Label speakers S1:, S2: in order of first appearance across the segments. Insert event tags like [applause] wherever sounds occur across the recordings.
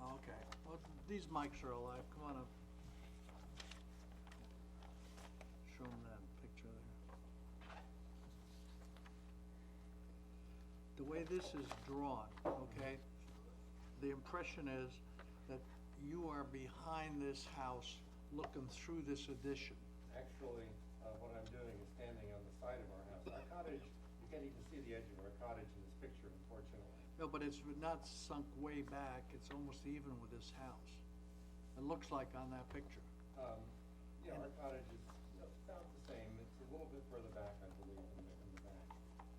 S1: Oh, these mics are alive, come on up. Show them that picture there. The way this is drawn, okay, the impression is that you are behind this house looking through this addition.
S2: Actually, uh, what I'm doing is standing on the side of our house. Our cottage, you can't even see the edge of our cottage in this picture, unfortunately.
S1: No, but it's not sunk way back, it's almost even with this house. It looks like on that picture.
S2: Um, yeah, our cottage is about the same. It's a little bit further back, I believe, in the, in the back.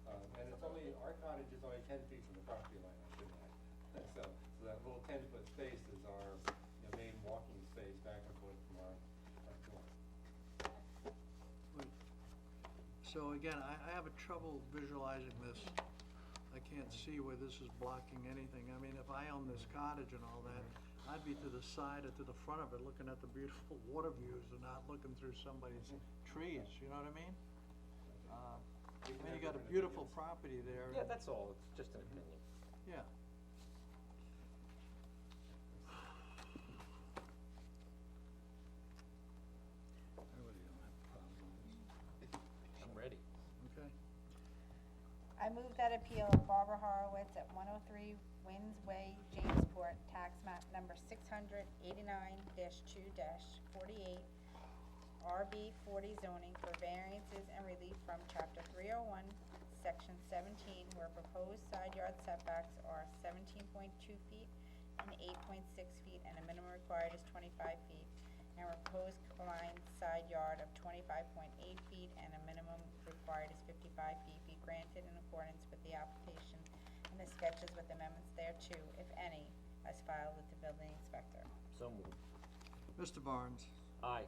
S2: Um, and it's only, our cottage is only ten feet from the property line, I should add. [laughs] So, so that little ten-foot space is our, you know, main walking space back and forth from our, our door.
S1: Wait. So again, I, I have a trouble visualizing this. I can't see where this is blocking anything. I mean, if I owned this cottage and all that, I'd be to the side or to the front of it, looking at the beautiful [laughs] water views and not looking through somebody's trees, you know what I mean? Uh, I
S2: We can
S1: mean,
S2: have
S1: you got a
S2: different
S1: beautiful
S2: opinions.
S1: property there.
S3: Yeah,
S1: and-
S3: that's all, it's just an opinion.
S1: Yeah. I really don't have a problem with
S3: I'm ready.
S1: this, okay?
S4: I move that appeal of Barbara Horowitz at one oh three Winds Way, Jamesport, tax map number six hundred eighty-nine two forty-eight, RB forty zoning for variances and relief from chapter three oh one, section seventeen, where proposed side yard setbacks are seventeen point two feet and eight point six feet, and a minimum required is twenty-five feet, and proposed combined side yard of twenty-five point eight feet, and a minimum required is fifty-five feet, be granted in accordance with the application and the sketches with amendments thereto, if any, as filed with the building inspector.
S3: So moved.
S1: Mr. Barnes,
S3: Aye.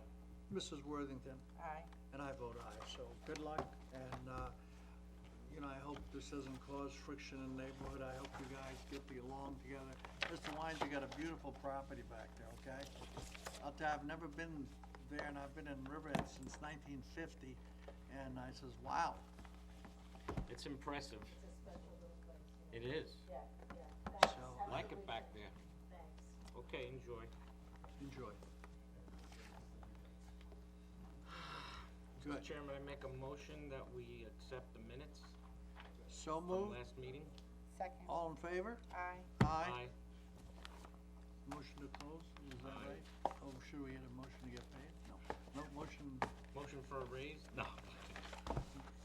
S1: Mrs. Worthington,
S4: Aye.
S1: and I vote aye, so good luck, and, uh, you know, I hope this doesn't cause friction in the neighborhood, I hope you guys get the along together. Mr. Wines, you got a beautiful property back there, okay? I'll tell you, I've never been there, and I've been in Riverhead since nineteen fifty, and I says, wow,
S5: It's impressive. It is.
S1: so,
S5: Like it back there. Okay, enjoy.
S1: enjoy. Good,
S5: Mr. Chairman, I make a motion that we accept the minutes
S1: so moved,
S5: from last meeting.
S4: Second.
S1: all in favor?
S4: Aye.
S1: Aye. Motion to close, is that
S5: Aye.
S1: right? Oh, should we get a motion to get paid? No, no, motion,
S5: Motion for a raise? No.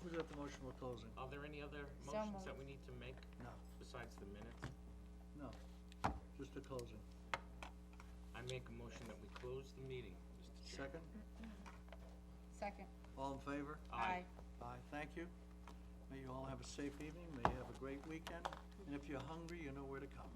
S1: who's at the motion for closing?
S5: Are there any other
S4: So
S5: motions that
S4: moved.
S5: we need to make
S1: No,
S5: besides the minutes?
S1: no, just the closing.
S5: I make a motion that we close the meeting, Mr. Chairman.
S1: Second,
S4: Second.
S1: all in favor?
S5: Aye.
S1: Aye, thank you. May you all have a safe evening, may you have a great weekend, and if you're hungry, you know where to come.